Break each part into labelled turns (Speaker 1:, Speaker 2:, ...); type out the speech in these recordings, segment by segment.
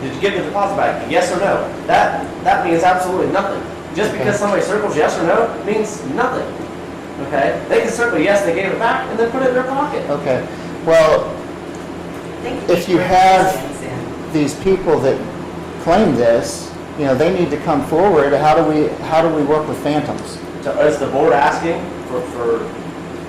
Speaker 1: Did you give the deposit back? Yes or no? That, that means absolutely nothing. Just because somebody circles yes or no means nothing. Okay? They can circle yes, they gave it back, and then put it in their pocket.
Speaker 2: Okay, well, If you have- these people that claim this, you know, they need to come forward. How do we, how do we work with phantoms?
Speaker 1: So is the board asking for, for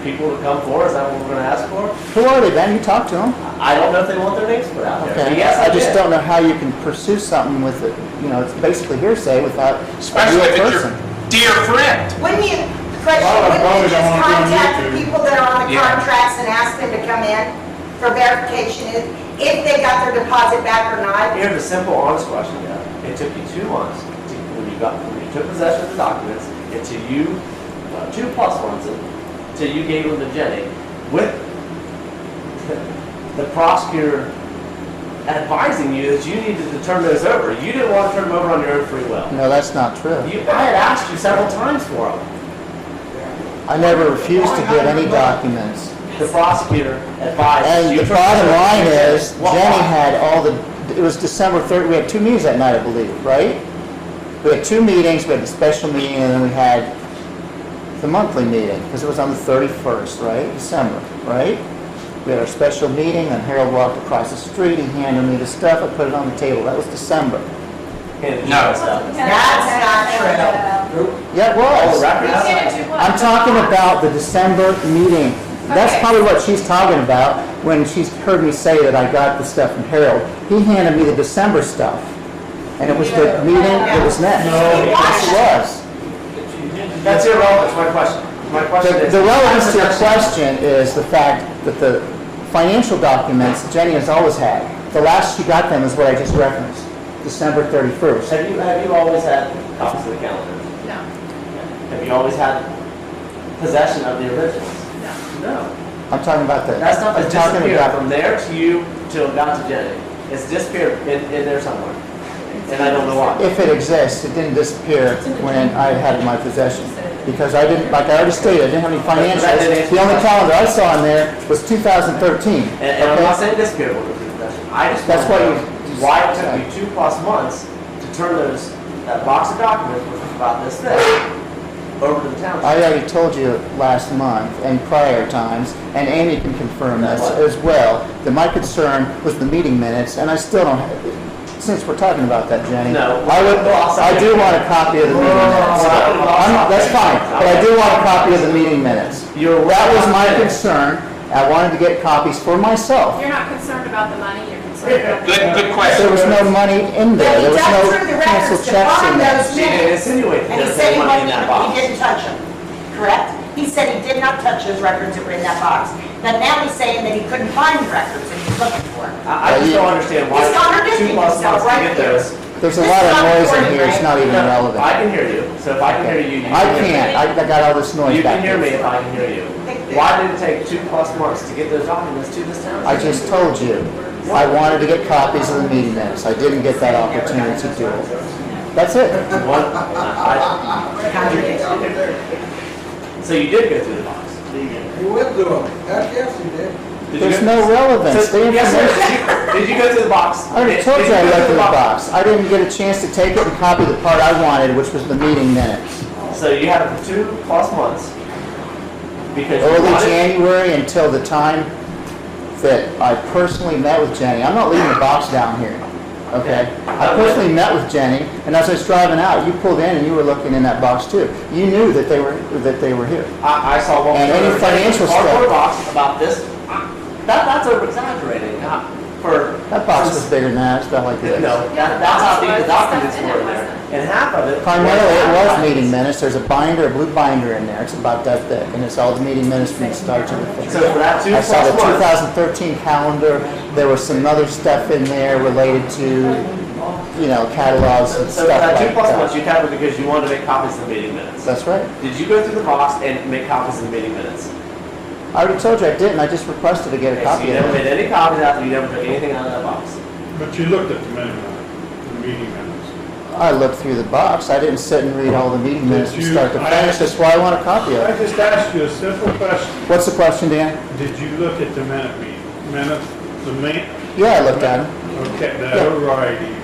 Speaker 1: people to come forward? Is that what we're gonna ask for?
Speaker 2: Who are they, Ben? You talked to them?
Speaker 1: I don't know if they want their names put out there.
Speaker 2: Okay.
Speaker 1: But yes, I
Speaker 2: just
Speaker 1: did.
Speaker 2: don't know how you can pursue something with it, you know, it's basically hearsay without a
Speaker 3: especially
Speaker 2: real
Speaker 3: if it's your
Speaker 2: person.
Speaker 3: dear friend.
Speaker 4: Wouldn't you, question,
Speaker 5: Well, I
Speaker 4: wouldn't you
Speaker 5: probably don't
Speaker 4: just
Speaker 5: wanna do
Speaker 4: contact the
Speaker 5: YouTube.
Speaker 4: people that are on the
Speaker 3: Yeah.
Speaker 4: contracts and ask them to come in for verification if, if they got their deposit back or not?
Speaker 1: Here's a simple, honest question, yeah. It took you two months to, when you got, when you took possession of the documents, until you, uh, two plus months, until you gave them to Jenny, with the prosecutor advising you that you needed to turn those over. You didn't want to turn them over on your own free will.
Speaker 2: No, that's not true.
Speaker 1: You, I had asked you several times for them.
Speaker 2: I never refused to get any documents.
Speaker 1: The prosecutor advised.
Speaker 2: And
Speaker 1: you
Speaker 2: the
Speaker 1: turn
Speaker 2: bottom
Speaker 1: those over.
Speaker 2: line is,
Speaker 1: Why?
Speaker 2: Jenny had all the, it was December 3rd, we had two meetings that night, I believe, right? We had two meetings, we had the special meeting, and then we had the monthly meeting, because it was on the 31st, right, December, right? We had our special meeting, and Harold walked across the street, he handed me the stuff, I put it on the table, that was December.
Speaker 1: Handed you
Speaker 3: No.
Speaker 1: that stuff.
Speaker 4: That's not true.
Speaker 2: Yeah, it
Speaker 1: Oh,
Speaker 2: was.
Speaker 1: record, that's not-
Speaker 2: I'm talking about the December meeting. That's
Speaker 6: Okay.
Speaker 2: probably what she's talking about when she's heard me say that I got the stuff from Harold. He handed me the December stuff, and it was the meeting that was next.
Speaker 5: No.
Speaker 2: Yes, it was.
Speaker 1: That's irrelevant to my question. My question
Speaker 2: The-
Speaker 1: is.
Speaker 2: The relevance to your
Speaker 1: Possession.
Speaker 2: question is the fact that the financial documents Jenny has always had. The last she got them is what I just referenced, December 31st.
Speaker 1: Have you, have you always had copies of the calendar?
Speaker 6: No,
Speaker 1: Have you always had possession of the originals?
Speaker 6: no.
Speaker 1: No.
Speaker 2: I'm talking about the,
Speaker 1: That stuff
Speaker 2: I'm
Speaker 1: has
Speaker 2: talking
Speaker 1: disappeared
Speaker 2: about,
Speaker 1: from there to you till down to Jenny. It's disappeared in, in there somewhere. And I don't know why.
Speaker 2: if it exists, it didn't disappear when I had it in my possession. Because I didn't, like I already stated, I didn't have any financials. The only calendar I saw in there was 2013.
Speaker 1: And, and I'm not
Speaker 2: okay?
Speaker 1: saying disappeared with the possession. I just.
Speaker 2: That's
Speaker 1: wanna
Speaker 2: why
Speaker 1: know
Speaker 2: you-
Speaker 1: Why it took you two plus months to turn those, that box of documents, which was about this thick, over to the township?
Speaker 2: I already told you last month and prior times, and Amy can confirm this
Speaker 1: That's right.
Speaker 2: as well, that my concern was the meeting minutes, and I still don't, since we're talking about that, Jenny.
Speaker 1: No.
Speaker 2: I would, I do want a copy of the meeting minutes. I'm- That's fine, but I do want a copy of the meeting minutes.
Speaker 1: You're.
Speaker 2: That was my concern. I wanted to get copies for myself.
Speaker 6: You're not concerned about the money, you're concerned about.
Speaker 3: Good, good question.
Speaker 2: There was no money in
Speaker 4: But
Speaker 2: there.
Speaker 4: he
Speaker 2: There was
Speaker 4: dug
Speaker 2: no
Speaker 4: through the
Speaker 2: canceled
Speaker 4: records to
Speaker 2: checks in
Speaker 4: find
Speaker 2: there.
Speaker 1: She
Speaker 4: those
Speaker 1: did
Speaker 4: minutes.
Speaker 1: insinuate
Speaker 4: And he
Speaker 1: that
Speaker 4: said
Speaker 1: there
Speaker 4: he
Speaker 1: was money in that
Speaker 4: wasn't, he
Speaker 1: box.
Speaker 4: didn't touch them, correct? He said he did not touch those records that were in that box. But now he's saying that he couldn't find the records that he's looking for.
Speaker 1: I I just don't understand why
Speaker 4: He's
Speaker 1: two
Speaker 4: contradicting
Speaker 1: plus months
Speaker 4: himself
Speaker 1: to
Speaker 4: right
Speaker 1: get
Speaker 4: here.
Speaker 1: those.
Speaker 2: There's a lot of noise in here. It's not even
Speaker 1: No, I
Speaker 2: relevant.
Speaker 1: can hear you, so if I can hear you, you
Speaker 2: I
Speaker 1: can hear me.
Speaker 2: can't. I I got all this
Speaker 1: You
Speaker 2: noise
Speaker 1: can
Speaker 2: back
Speaker 1: hear me if
Speaker 2: there.
Speaker 1: I can hear you. Why did it take two plus months to get those documents to this town?
Speaker 2: I just told you, I wanted to get copies of the meeting minutes. I didn't get that opportunity to do it. That's it.
Speaker 1: One, I- so you did go through the box?
Speaker 7: He went through them. Heck, yes, he did.
Speaker 1: Did you
Speaker 2: There's
Speaker 1: go-
Speaker 2: no relevance.
Speaker 1: So-
Speaker 2: The
Speaker 1: Yes,
Speaker 2: information-
Speaker 1: sir, did you, did you go through the box?
Speaker 2: I already
Speaker 1: Did-
Speaker 2: told
Speaker 1: did
Speaker 2: you I
Speaker 1: go
Speaker 2: left
Speaker 1: through
Speaker 2: the box. I didn't get a chance to take it and copy the part I wanted, which was the meeting minutes.
Speaker 1: So you had two plus months because you
Speaker 2: early
Speaker 1: wanted.
Speaker 2: January until the time that I personally met with Jenny. I'm not leaving the box down here, okay? I personally met with Jenny, and as I was driving out, you pulled in and you were looking in that box too. You knew that they were, that they were here.
Speaker 1: I, I saw one.
Speaker 2: And any
Speaker 1: photo of a
Speaker 2: financial
Speaker 1: Cardboard
Speaker 2: stuff.
Speaker 1: box about this, that, that's over exaggerating, not for.
Speaker 2: That box was bigger than that, it's about like this.
Speaker 1: No, that, that's how big the documents were there, and half of it.
Speaker 2: Primarily, it was meeting minutes. There's a binder, a blue binder in there. It's about that thick, and it's all the meeting minutes from the start to the finish.
Speaker 1: So for that two
Speaker 2: I saw the
Speaker 1: plus one,
Speaker 2: 2013 calendar, there was some other stuff in there related to, you know, catalogs and
Speaker 1: so for
Speaker 2: stuff
Speaker 1: that two
Speaker 2: like
Speaker 1: plus ones, you
Speaker 2: that.
Speaker 1: counted because you wanted to make copies of the meeting minutes.
Speaker 2: That's right.
Speaker 1: Did you go through the box and make copies of the meeting minutes?
Speaker 2: I already told you I didn't, I just requested to get a
Speaker 1: Okay, so
Speaker 2: copy
Speaker 1: you
Speaker 2: of
Speaker 1: never
Speaker 2: it.
Speaker 1: made any copies after, you never took anything out of that box.
Speaker 5: But you looked at the minutes, the meeting minutes.
Speaker 2: I looked through the box, I didn't sit and read all the meeting minutes from
Speaker 5: you-
Speaker 2: start to
Speaker 5: I-
Speaker 2: finish, that's why I want a copy of
Speaker 5: I
Speaker 2: it.
Speaker 5: just asked you a simple question.
Speaker 2: What's the question, Dan?
Speaker 5: Did you look at the minute meeting, minutes, the main?
Speaker 2: Yeah, I looked at them.
Speaker 5: Okay,
Speaker 2: Yeah.
Speaker 5: the overriding